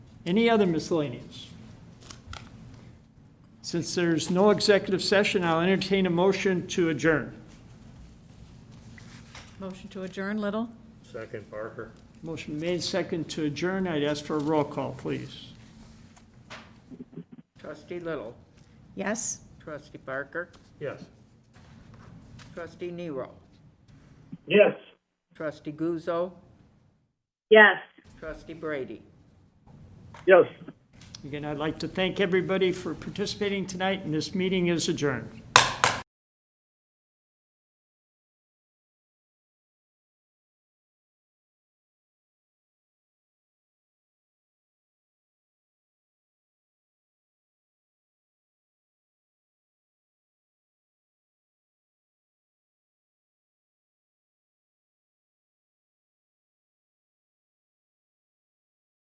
Any other miscellaneous? Since there's no executive session, I'll entertain a motion to adjourn. Motion to adjourn, Little? Second, Parker. Motion made, second to adjourn. I'd ask for a roll call, please. Trustee Little, Yes? trustee Barker, Yes. trustee Nero, Yes. trustee Guzzo, Yes. trustee Brady. Yes. Again, I'd like to thank everybody for participating tonight, and this meeting is adjourned.